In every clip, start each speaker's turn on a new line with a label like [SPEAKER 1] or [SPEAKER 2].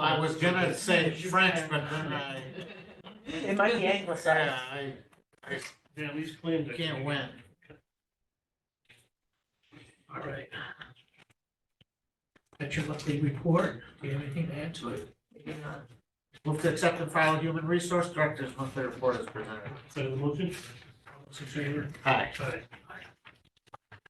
[SPEAKER 1] I was gonna say French, but then I,
[SPEAKER 2] It might be anglicized.
[SPEAKER 1] yeah, I, I
[SPEAKER 3] They at least claimed. it.
[SPEAKER 1] can't win.
[SPEAKER 3] All right. That's your monthly report. Do you have anything to add to it?
[SPEAKER 1] Move to accept and file human resource directors monthly report as presented.
[SPEAKER 3] Second the motion? All those in favor?
[SPEAKER 1] Hi.
[SPEAKER 3] Aye.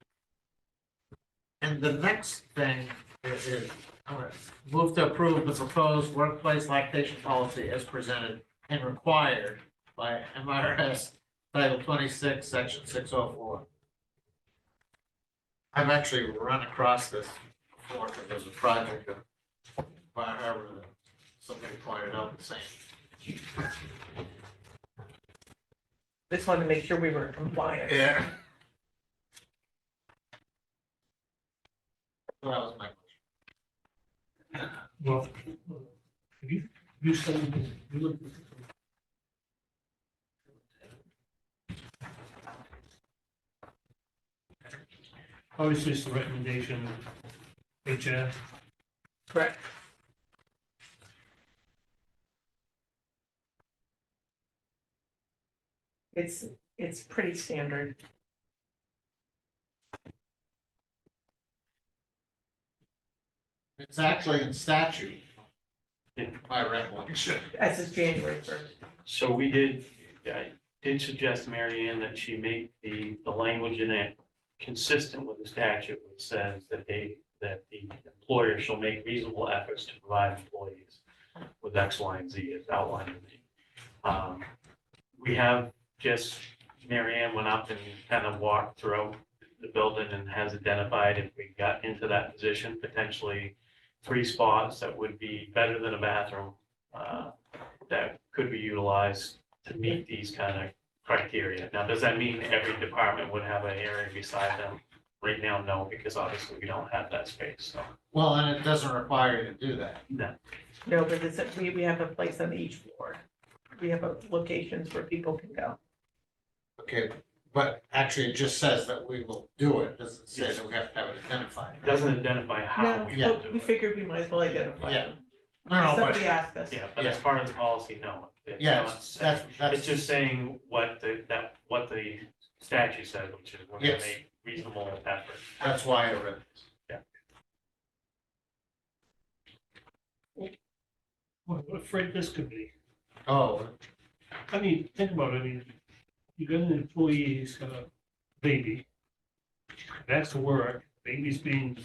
[SPEAKER 1] And the next thing is, is, all right, move to approve the proposed workplace lactation policy as presented and required by MRS Title twenty-six, section six oh four. I've actually run across this before, because there's a project of Bar Harbor that somebody pointed out the same.
[SPEAKER 2] Just wanted to make sure we were compliant.
[SPEAKER 1] Yeah. That was my
[SPEAKER 3] Well, have you, you said, you look. Obviously, it's the recommendation, HF.
[SPEAKER 2] Correct. It's, it's pretty standard.
[SPEAKER 1] It's actually in statute.
[SPEAKER 4] Yeah.
[SPEAKER 1] My recollection.
[SPEAKER 2] As is January first.
[SPEAKER 4] So we did, I did suggest to Mary Ann that she make the, the language in it consistent with the statute, which says that they, that the employer shall make reasonable efforts to provide employees with X, Y, and Z as outlined in the. um, We have just, Mary Ann went up and kind of walked through the building and has identified if we got into that position, potentially three spots that would be better than a bathroom. uh, that could be utilized to meet these kind of criteria. Now, does that mean every department would have an area beside them? Right now, no, because obviously we don't have that space, so.
[SPEAKER 1] Well, and it doesn't require you to do that.
[SPEAKER 4] No.
[SPEAKER 2] No, but it's, we, we have a place on each floor. We have a- locations where people can go.
[SPEAKER 1] Okay, but actually it just says that we will do it. Doesn't say that we have to have it identified.
[SPEAKER 4] It Doesn't identify how we
[SPEAKER 1] Yeah.
[SPEAKER 4] will
[SPEAKER 2] No,
[SPEAKER 4] do
[SPEAKER 2] we
[SPEAKER 4] it.
[SPEAKER 2] figured we might as well identify
[SPEAKER 1] Yeah.
[SPEAKER 2] them.
[SPEAKER 1] No, no,
[SPEAKER 2] Somebody
[SPEAKER 1] but,
[SPEAKER 2] asked us.
[SPEAKER 4] Yeah, but as far as the policy, no. it's
[SPEAKER 1] yeah,
[SPEAKER 4] not
[SPEAKER 1] it's-
[SPEAKER 4] saying-
[SPEAKER 1] that's, that's.
[SPEAKER 4] It's just saying what the, that, what the statute says, which is we're gonna
[SPEAKER 1] Yes.
[SPEAKER 4] make reasonable effort.
[SPEAKER 1] That's why I read it.
[SPEAKER 3] What what a freight this could be.
[SPEAKER 1] Oh,
[SPEAKER 3] I mean, think about it, I mean, you got an employee who's got a baby. That's to work, baby's being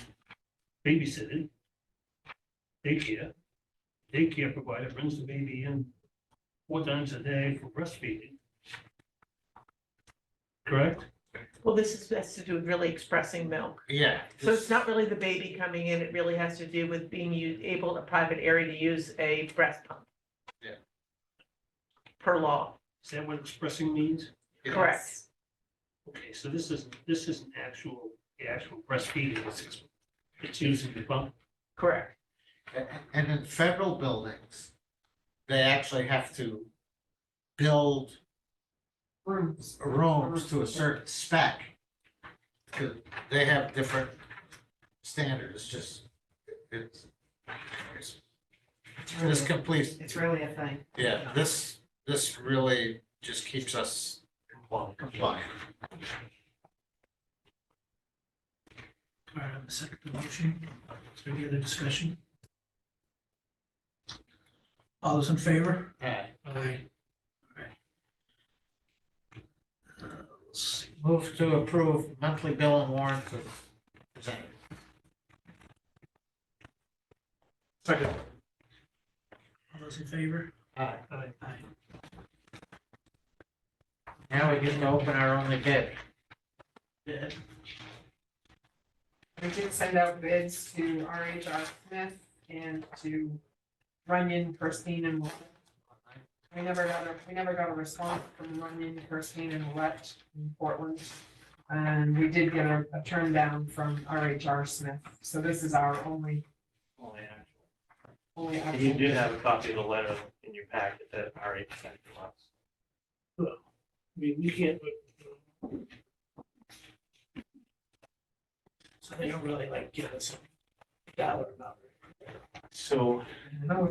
[SPEAKER 3] babysitted. Daycare. Daycare provider brings the baby in four times a day for breastfeeding. Correct?
[SPEAKER 2] Well, this is, has to do with really expressing milk.
[SPEAKER 1] yeah.
[SPEAKER 2] So it's not really the baby coming in, it really has to do with being u- able, a private area to use a breast pump.
[SPEAKER 1] Yeah.
[SPEAKER 2] Per law,
[SPEAKER 3] Is that what expressing means?
[SPEAKER 1] Yeah.
[SPEAKER 2] correct.
[SPEAKER 3] Okay, so this isn't, this isn't actual, the actual breastfeeding, it's, it's using the pump.
[SPEAKER 2] Correct.
[SPEAKER 1] And in federal buildings, they actually have to build
[SPEAKER 5] rooms.
[SPEAKER 1] rooms to a certain spec. Cause they have different standards, just, it's, it's
[SPEAKER 5] It's really-
[SPEAKER 1] This completes,
[SPEAKER 5] It's really a thing.
[SPEAKER 1] yeah, this, this really just keeps us
[SPEAKER 4] Well,
[SPEAKER 1] compliant.
[SPEAKER 3] All right, on the second motion, is there any other discussion? All those in favor?
[SPEAKER 1] Alright,
[SPEAKER 3] Aye. Uh,
[SPEAKER 1] Move to approve monthly bill and warrants as presented.
[SPEAKER 3] Second. All those in favor?
[SPEAKER 1] Alright,
[SPEAKER 3] Aye. Aye.
[SPEAKER 1] now we get to open our only bid.
[SPEAKER 5] We did send out bids to RHR Smith and to Runyon, Kirstein and Willett. We never got a, we never got a response from Runyon, Kirstein and Willett in Portland. And we did get a, a turn down from RHR Smith, so this is our only,
[SPEAKER 4] only actual-
[SPEAKER 5] only.
[SPEAKER 4] And You
[SPEAKER 5] option.
[SPEAKER 4] did have a copy of the letter in your packet that already sent to us.
[SPEAKER 3] I mean, we can't, but. So they don't really like give us a dollar amount.
[SPEAKER 4] So
[SPEAKER 5] No,